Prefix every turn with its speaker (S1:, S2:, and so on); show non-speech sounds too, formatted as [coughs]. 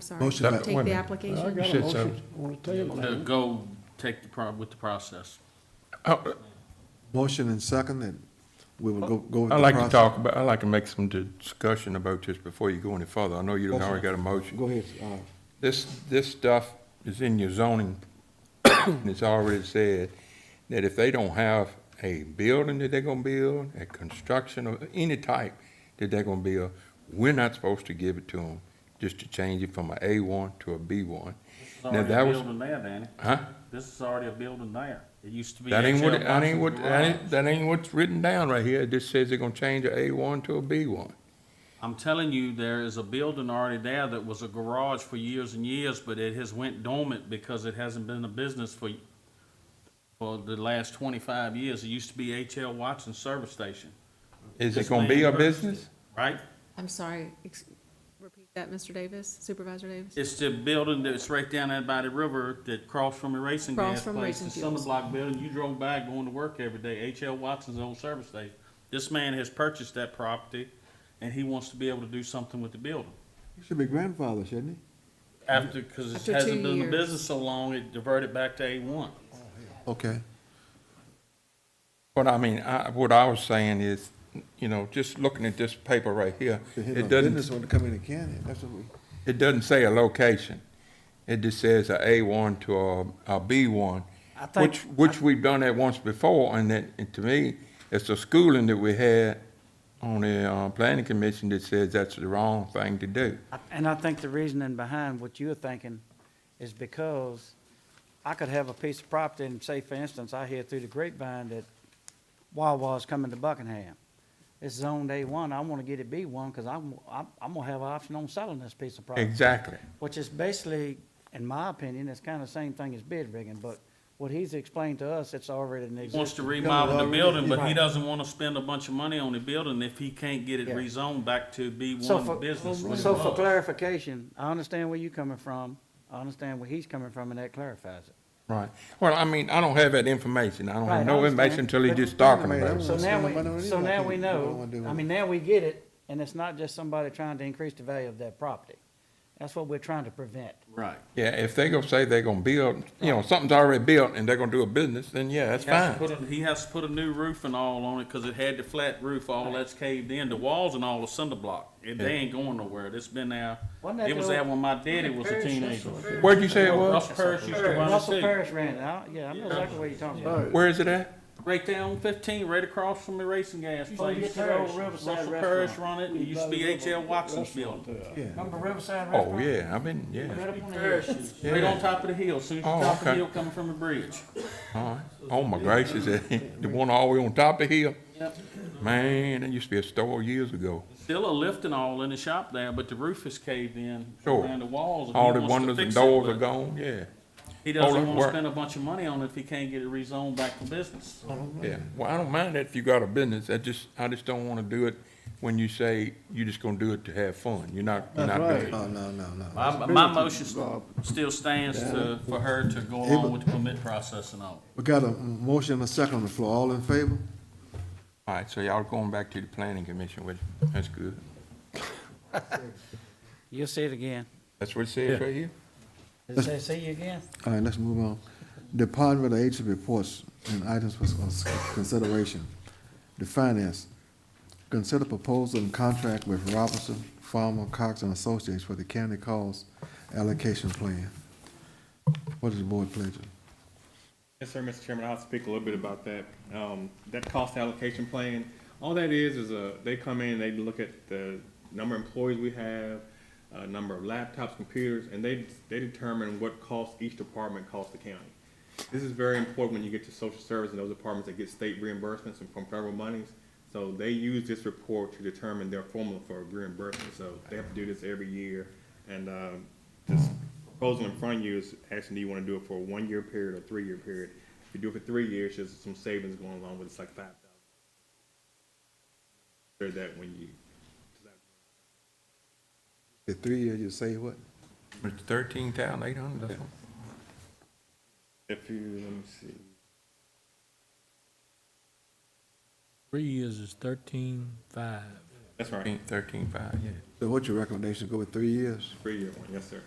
S1: sorry.
S2: Motion
S1: Take
S2: by- wait a
S1: the
S2: minute.
S3: I
S1: application.
S3: got a
S2: Shit, so-
S3: motion on the table.
S4: To go take the, pro- with the process.
S5: I-
S2: Motion and second, and we will go, go with
S5: Oh, I'd
S2: the
S5: like to
S2: process.
S5: talk about, I'd like to make some discussion about this before you go any further. I know you done
S2: Yes, sir.
S5: already got a motion.
S2: Go ahead, uh,
S5: This, this stuff is in your zoning, [coughs] and it's already said that if they don't have a building that they're gonna build, a construction of any type that they're gonna build, we're not supposed to give it to them, just to change it from a A one to a B one.
S4: It's
S5: Now,
S4: already
S5: that
S4: a
S5: was,
S4: building there, Danny.
S5: huh?
S4: This is already a building there. It used to be.
S5: That ain't
S4: H.L.
S5: what, that ain't what,
S4: Watson's
S5: that ain't,
S4: Garage.
S5: that ain't what's written down right here. It just says they're gonna change a A one to a B one.
S4: I'm telling you, there is a building already there that was a garage for years and years, but it has went dormant because it hasn't been a business for, for the last twenty-five years. It used to be H.L. Watson Service Station,
S5: Is it
S4: Just
S5: gonna be
S4: land
S5: a
S4: purchase.
S5: business?
S4: right?
S1: I'm sorry, ex- repeat that, Mr. Davis, Supervisor Davis?
S4: It's the building that's right down there by the river that crossed from the racing
S1: Across
S4: gas
S1: from
S4: place.
S1: Racing
S4: The summer
S1: Fuels.
S4: block building, you drove by going to work every day, H.L. Watson's old service station. This man has purchased that property and he wants to be able to do something with the building.
S2: he should be grandfather, shouldn't he?
S4: After, because it
S1: After two
S4: hasn't been in
S1: years.
S4: business so long, it diverted back to A one.
S2: Okay,
S5: But I mean, I, what I was saying is, you know, just looking at this paper right here,
S2: So his
S5: it doesn't,
S2: business want to come in and can it, that's what we,
S5: it doesn't say a location. It just says a A one to a, a B one,
S6: I think-
S5: which, which we've done that once before, and that, and to me, it's the schooling that we had on the, uh, planning commission that says that's the wrong thing to do.
S6: I- And I think the reasoning behind what you're thinking is because I could have a piece of property and say, for instance, I hear through the grapevine that Wawa's coming to Buckingham. It's zoned A1, I want to get it B1 because I'm, I'm, I'm going to have an option on selling this piece of property.
S5: Exactly.
S6: Which is basically, in my opinion, it's kind of the same thing as bid rigging, but what he's explained to us, it's already an
S4: He Wants
S6: existing.
S4: to remodel the
S2: already-
S4: building, but he
S6: Right.
S4: doesn't want to spend a bunch of money on the building if he can't get it
S6: Yeah.
S4: rezoned back to B
S6: So for-
S4: one business. when it
S6: So for
S4: was.
S6: clarification, I understand where you're coming from, I understand where he's coming from, and that clarifies it.
S5: Right. Well, I mean, I don't have that information. I don't
S6: Right, I
S5: have no
S6: understand.
S5: information until he
S6: But-
S5: just
S2: Wait a
S5: talking
S2: minute,
S5: about
S2: I
S5: it.
S6: So
S2: Well,
S6: now
S2: see, nobody
S6: we,
S2: knows
S6: so
S2: about
S6: now
S2: that.
S6: we
S2: They don't
S6: know,
S2: wanna do
S6: I
S2: it.
S6: mean, now we get it, and it's not just somebody trying to increase the value of that property. That's what we're trying to prevent.
S4: Right.
S5: Yeah, if they gonna say they're gonna build, you know, something's already built and they're gonna do a business, then yeah, that's
S4: He has to
S5: fine.
S4: put a- He has to put a new roof and all on it, cause it had the flat roof, all that's caved in, the walls and all are cinder block. It, they ain't going nowhere, it's been there,
S6: Wasn't that
S4: it was
S6: the
S4: there
S6: old-
S4: when my daddy was a
S6: Parish, that's
S4: teenager.
S6: what-
S5: Where'd you say it was?
S4: Russell Parish used to run it
S6: Russell
S4: too,
S6: Parish ran it, I- yeah, I know exactly what you're talking about.
S5: Where is it at?
S4: right there on fifteen, right across from the racing gas
S6: Used to be
S4: place.
S6: the old
S4: Russell
S6: Riverside
S4: Parish
S6: restaurant.
S4: run it, it used to be H L Watson's building,
S2: yeah.
S6: Remember Riverside
S5: Oh,
S6: Restaurant?
S5: yeah, I've been, yeah,
S6: Right up on the hill.
S4: right on top of the hill, soon as you
S5: Oh,
S4: top of the
S5: okay.
S4: hill coming from the bridge.
S5: all right. Oh, my gracious, [laughs] the one all the way on top of the hill?
S4: Yep.
S5: Man, that used to be a store years ago.
S4: Still a lift and all in the shop there, but the roof is caved in,
S5: Sure.
S4: around the walls. and he
S5: All the
S4: wants to
S5: windows and
S4: fix it,
S5: doors
S4: but-
S5: are gone, yeah, Oh,
S4: He doesn't
S5: that
S4: want to
S5: work.
S4: spend a bunch of money on it if he can't get it rezoned back to business.
S5: yeah. Well, I don't mind that if you got a business, I just, I just don't wanna do it when you say you're just gonna do it to have fun. You're not, you're not doing it.
S2: No, no, no, no.
S4: My, my motion still stands to, for her to go along with the permit process and all.
S2: We got a motion and a second on the floor, all in favor?
S5: All right, so y'all going back to the planning commission, which, that's good.
S6: You'll see it again.
S5: That's what it says right here?
S6: Does it say see you again?
S2: All right, let's move on. Department of agency reports and items for consideration. The finance, consider proposal and contract with Robinson, Farmer, Cox and Associates for the county cost allocation plan. What is the board pleasure?
S7: Yes, sir, Mr. Chairman, I'll speak a little bit about that. Um, that cost allocation plan, all that is, is a, they come in, they look at the number of employees we have, uh, number of laptops, computers, and they, they determine what costs each department costs the county. This is very important when you get to social service and those departments that get state reimbursements and from federal monies. So they use this report to determine their formula for reimbursement, so they have to do this every year. And, um, this proposal in front of you is asking, do you wanna do it for a one-year period or three-year period? If you do it for three years, there's some savings going along with it, it's like five thousand. Heard that when you,
S2: The three years, you say what?
S5: It's thirteen thousand eight hundred,
S7: if you, let me see,
S8: Three years is thirteen five.
S7: That's right,
S5: Thirteen, thirteen five, yeah.
S2: So what's your recommendation, go with three years?
S7: three-year one, yes, sir.